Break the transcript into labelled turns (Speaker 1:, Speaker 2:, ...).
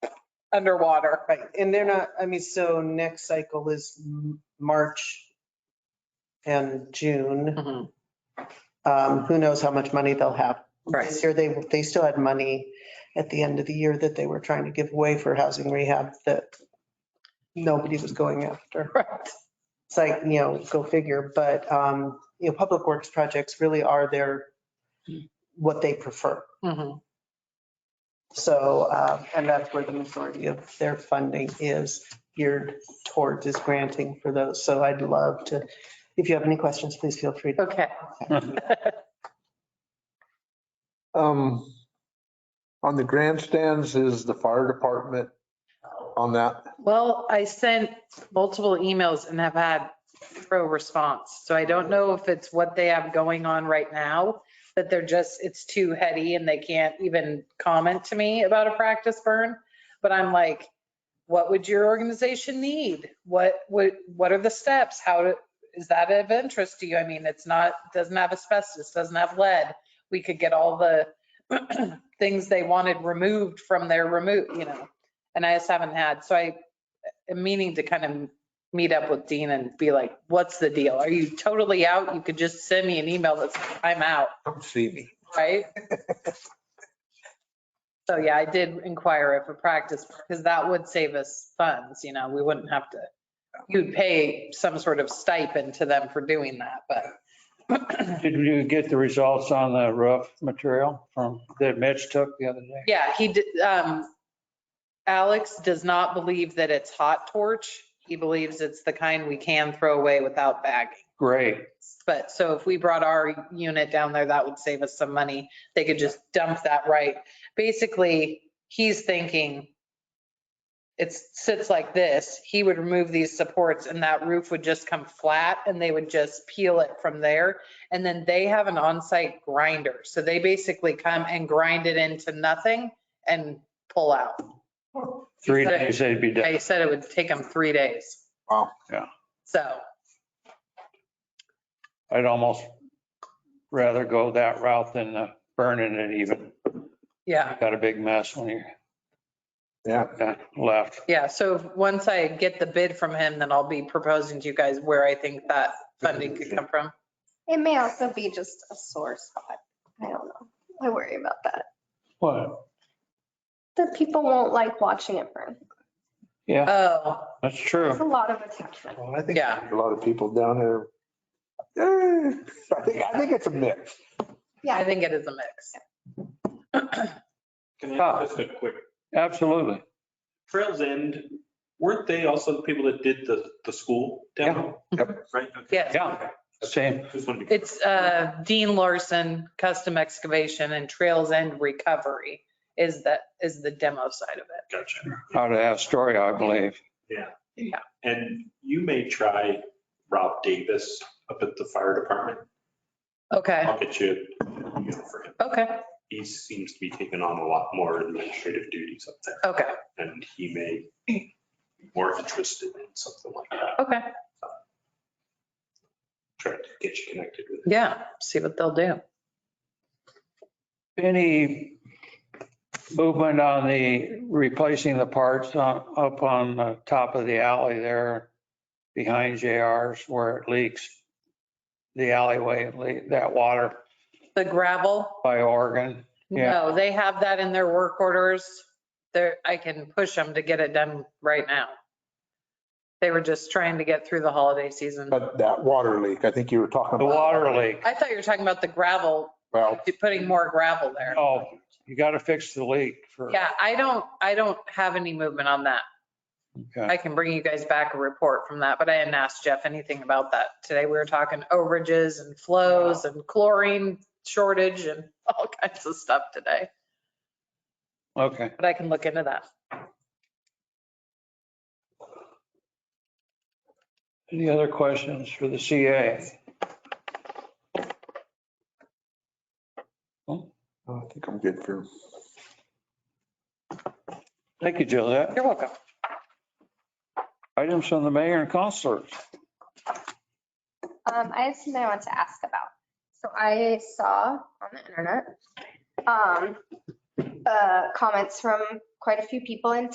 Speaker 1: underwater.
Speaker 2: Right, and they're not, I mean, so next cycle is M- March and June.
Speaker 1: Mhm.
Speaker 2: Um, Who knows how much money they'll have.
Speaker 1: Right,
Speaker 2: This year, they, they still had money at the end of the year that they were trying to give away for housing rehab that nobody was going after.
Speaker 1: right.
Speaker 2: It's like, you know, go figure, but, um, you know, public works projects really are their, what they prefer.
Speaker 1: Mhm.
Speaker 2: So, uh, and that's where the majority of their funding is geared towards is granting for those. So I'd love to, if you have any questions, please feel free to.
Speaker 1: Okay.
Speaker 3: Um, on the grandstands is the fire department on that.
Speaker 1: Well, I sent multiple emails and have had pro response. So I don't know if it's what they have going on right now, that they're just, it's too heady and they can't even comment to me about a practice burn. But I'm like, what would your organization need? What, what, what are the steps? How to, is that of interest to you? I mean, it's not, doesn't have asbestos, doesn't have lead. We could get all the things they wanted removed from their remove, you know? And I just haven't had, so I am meaning to kind of meet up with Dean and be like, what's the deal? Are you totally out? You could just send me an email that's, I'm out,
Speaker 3: Come see me.
Speaker 1: right? So yeah, I did inquire if a practice, because that would save us funds, you know, we wouldn't have to, you'd pay some sort of stipend to them for doing that, but
Speaker 4: Did you get the results on the roof material from, that Mitch took the other day?
Speaker 1: Yeah, he did, um, Alex does not believe that it's hot torch. He believes it's the kind we can throw away without bagging.
Speaker 4: Great.
Speaker 1: But so if we brought our unit down there, that would save us some money. They could just dump that right. Basically, he's thinking it sits like this, he would remove these supports and that roof would just come flat and they would just peel it from there. And then they have an on-site grinder. So they basically come and grind it into nothing and pull out.
Speaker 4: Three days they'd be done.
Speaker 1: They said it would take them three days.
Speaker 3: Wow.
Speaker 4: Yeah.
Speaker 1: So,
Speaker 4: I'd almost rather go that route than uh, burning it even.
Speaker 1: yeah.
Speaker 4: Got a big mess when you
Speaker 3: Yeah.
Speaker 4: uh, left.
Speaker 1: Yeah, so once I get the bid from him, then I'll be proposing to you guys where I think that funding could come from.
Speaker 5: It may also be just a sore spot. I don't know. I worry about that.
Speaker 4: Well,
Speaker 5: The people won't like watching it burn.
Speaker 4: yeah,
Speaker 1: Oh,
Speaker 4: that's
Speaker 5: It's a
Speaker 4: true.
Speaker 5: lot of attachment.
Speaker 3: Well, I think
Speaker 1: Yeah.
Speaker 3: a lot of people down there. Eh, I think, I think it's a mix.
Speaker 1: I
Speaker 5: Yeah,
Speaker 1: think it is a mix.
Speaker 6: Can I ask just a quick,
Speaker 4: Absolutely.
Speaker 6: Trails End, weren't they also the people that did the, the school demo?
Speaker 3: Yep.
Speaker 6: Right? okay.
Speaker 1: Yes,
Speaker 4: Yeah. Same.
Speaker 6: Just wanted to.
Speaker 1: it's uh, Dean Larson, Custom Excavation and Trails End Recovery is that, is the demo side of it.
Speaker 6: Gotcha.
Speaker 4: Out of Astoria, I believe.
Speaker 6: And you may try Rob Davis up at the fire department.
Speaker 1: Okay,
Speaker 6: I'll get you, you know, for him.
Speaker 1: okay,
Speaker 6: He seems to be taking on a lot more administrative duties up there
Speaker 1: okay,
Speaker 6: and he may be more interested in something like that.
Speaker 1: okay.
Speaker 6: Try to get you connected with him.
Speaker 1: Yeah, see what they'll do.
Speaker 4: Any movement on the replacing the parts on- up on the top of the alley there behind JR's where it leaks, the alleyway, it leak- that water
Speaker 1: The gravel,
Speaker 4: by Oregon? Yeah.
Speaker 1: no, they have that in their work orders. There, I can push them to get it done right now. They were just trying to get through the holiday season.
Speaker 3: But that water leak, I think you were talking
Speaker 4: The
Speaker 3: about.
Speaker 4: water leak.
Speaker 1: I thought you were talking about the gravel,
Speaker 3: Well,
Speaker 1: putting more gravel there.
Speaker 4: Oh, you got to fix the leak for,
Speaker 1: Yeah, I don't, I don't have any movement on that.
Speaker 4: Okay.
Speaker 1: I can bring you guys back a report from that, but I hadn't asked Jeff anything about that. Today we were talking overages and flows and chlorine shortage and all kinds of stuff today,
Speaker 4: okay.
Speaker 1: but I can look into that.
Speaker 4: Any other questions for the CA?
Speaker 3: I think I'm good for.
Speaker 4: Thank you, Josette.
Speaker 1: You're welcome.
Speaker 4: Items from the mayor and counselors.
Speaker 5: um, I have something I want to ask about. So I saw on the internet, um, uh, comments from quite a few people in